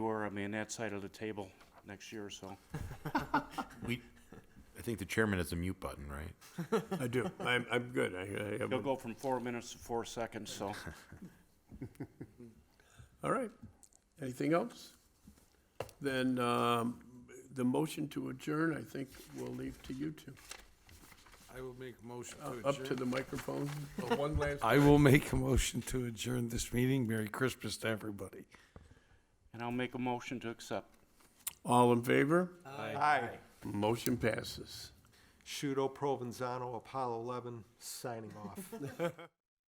of me on that side of the table next year or so. We, I think the chairman has a mute button, right? I do. I'm, I'm good. I, I, He'll I'm- go from four minutes to four seconds, so. all right. Anything else? Then, um, the motion to adjourn, I think we'll leave to you two. I will make a motion to Up to adjourn. the microphone. Oh, One last. I will make a motion to adjourn this meeting. Merry Christmas to everybody. And I'll make a motion to accept. All in favor? Aye. Motion passes. Shudo Provenzano, Apollo 11, signing off.